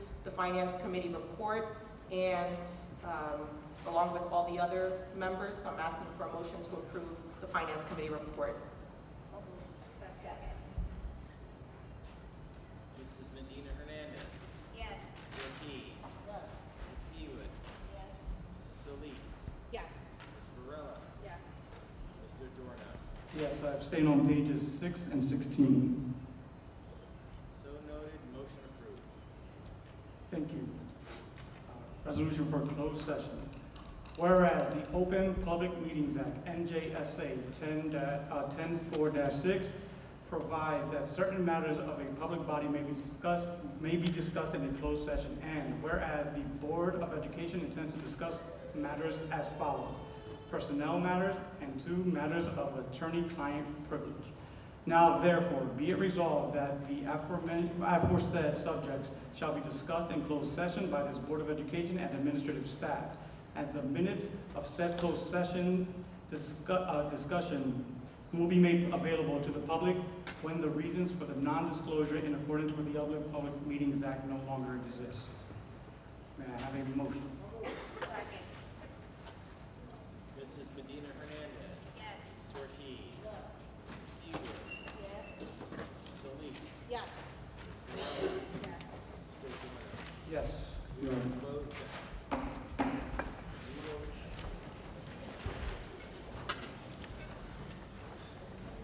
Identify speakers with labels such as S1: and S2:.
S1: the Finance Committee report, and um, along with all the other members, so I'm asking for a motion to approve the Finance Committee report.
S2: Second.
S3: Mrs. Medina Hernandez,
S2: Yes.
S3: Mr. Ortiz,
S2: Yes. Yes.
S3: Mrs. Seawood, Mrs. Solis,
S2: Yeah.
S3: Ms. Varela,
S2: Yes.
S3: Mr. Dorna.
S4: Yes, I abstain on pages six and sixteen.
S3: So noted, motion approved.
S4: Thank you. Uh, Resolution for closed session. Whereas the Open Public Meetings Act, NJSA ten, uh, ten four six, provides that certain matters of a public body may be discussed, may be discussed in a closed session. And whereas the Board of Education intends to discuss matters as follows. Personnel matters and two matters of attorney-client privilege. Now therefore, be it resolved that the aforemen- aforesaid subjects shall be discussed in closed session by this Board of Education and administrative staff. And the minutes of said closed session discu- uh, discussion will be made available to the public when the reasons for the non-disclosure in accordance with the Open Public Meetings Act no longer exist. May I have a motion?
S2: Second.
S3: Mrs. Medina Hernandez,
S2: Yes.
S3: Mr. Ortiz, Mrs. Seawood,
S2: Yes.
S3: Mrs. Solis,
S2: Yeah.
S3: Ms. Varela, Mr. Dorna.
S4: Yes.
S3: We are in closed